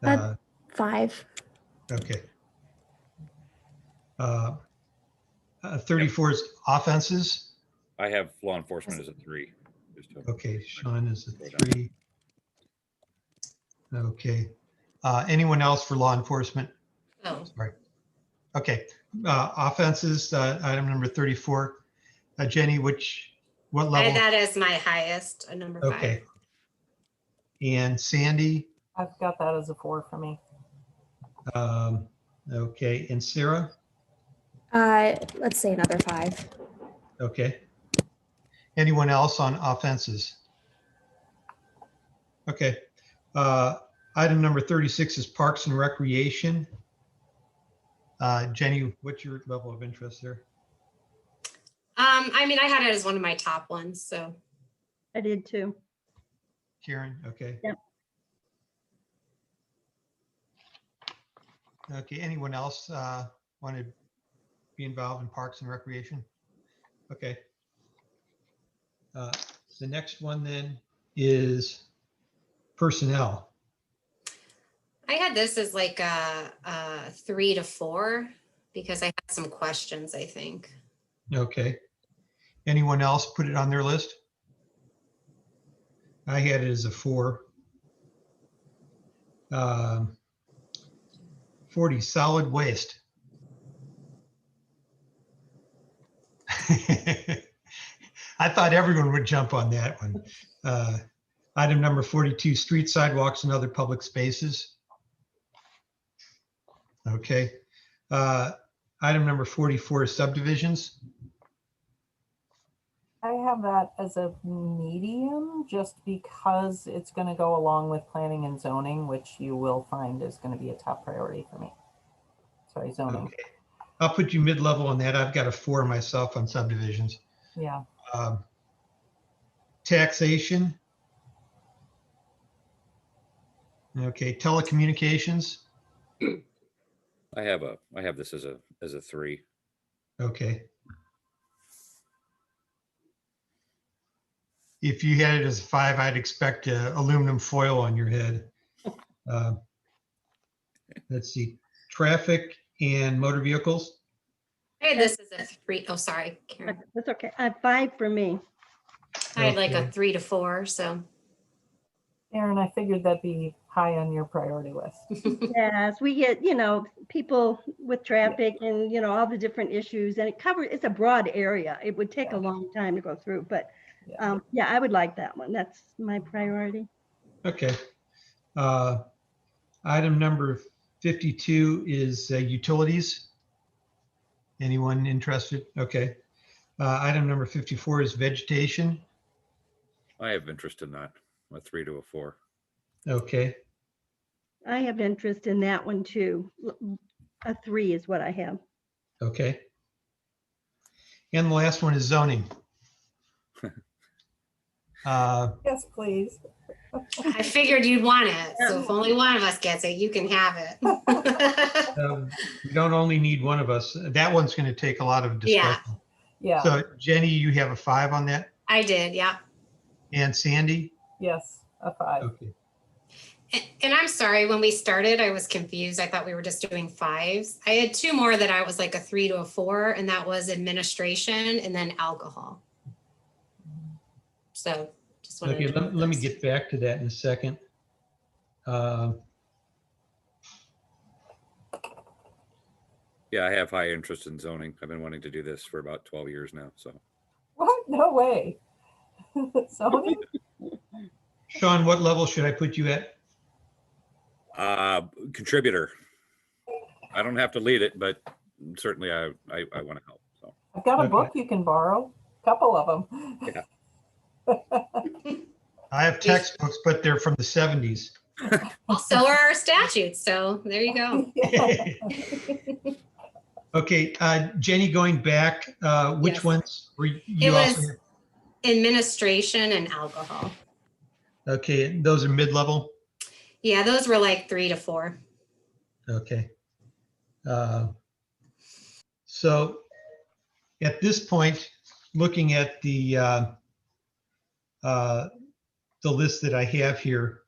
That- Uh, Five. Okay. Uh, uh, 34 is offenses. I have law enforcement as a three. just to- Okay, Sean is Go a down. three. Okay. Uh, Anyone else for law enforcement? No, Sorry. Okay, uh, offenses, uh, item number 34. Uh, Jenny, which, what I level? that is my highest, a number five. Okay. And Sandy, I've got that as a four for me. um, okay, and Sarah? Uh, let's say another five. Okay. Anyone else on offenses? Okay. Uh, Item number 36 is Parks and Recreation. Uh, Jenny, what's your level of interest there? Um, I mean, I had it as one of my top ones, so I did too. Karen, okay. Yep. Okay, anyone else want to be involved in Parks and Recreation? Okay. Uh, The next one then is personnel. I had this as like a, a three to four because I had some questions, I think. Okay. Anyone else put it on their list? I had it as a four. Um, 40, solid waste. I thought everyone would jump on that one. Uh, Item number 42, street sidewalks and other public spaces. Okay. Uh, Item number 44, subdivisions. I have that as a medium just because it's going to go along with planning and zoning, which you will find is going to be a top priority for me. Sorry, zoning. Okay, I'll put you mid-level on that. I've got a four myself on subdivisions. Yeah, Um, Taxation. Okay, telecommunications. I have a, I have this as a, as a three. Okay. If you had it as five, I'd expect uh, aluminum foil on your head. Uh, Let's see, traffic and motor vehicles. I had this as a three, oh, sorry, Karen. That- That's okay. Uh, five for me. I had like a Okay. three to four, so. Aaron, I figured that'd be high on your priority list. Yes, we get, you know, people with traffic and, you know, all the different issues and it covers, it's a broad area. It would take a long time to go through, but Yeah. um, yeah, I would like that one. That's my priority. Okay. Uh, Item number 52 is uh, utilities. Anyone interested? Okay. Uh, Item number 54 is vegetation. I have interest in that, a three to a four. Okay, I have interest in that one too. L- A three is what I have. okay. And the last one is zoning. Uh, Yes, please. I figured you'd want it, so if only one of us gets it, you can have it. um, We don't only need one of us. That one's going to take a lot of Yeah. discussion. Yeah, So Jenny, you have a five on that? I did, yeah. And Sandy? yes, a five. Okay. And- And I'm sorry, when we started, I was confused. I thought we were just doing fives. I had two more that I was like a three to a four, and that was administration and then alcohol. So just wanted Okay, to. let, let me get back to that in a second. Um, Yeah, I have high interest in zoning. I've been wanting to do this for about twelve years now, so. What? No way. Zoning? Sean, what level should I put you at? Uh, contributor. I don't have to lead it, but certainly I, I, I want to help, so. I've got a Okay. book you can borrow, couple of them. I have textbooks, but they're from the seventies. Well, So are our statutes, so there you go. Okay, uh, Jenny, going back, uh, which Yes. ones were you- It you also? was administration and alcohol. Okay, and those are mid-level? Yeah, those were like three to four. Okay. Uh, So at this point, looking at the uh, uh, the list that I have here,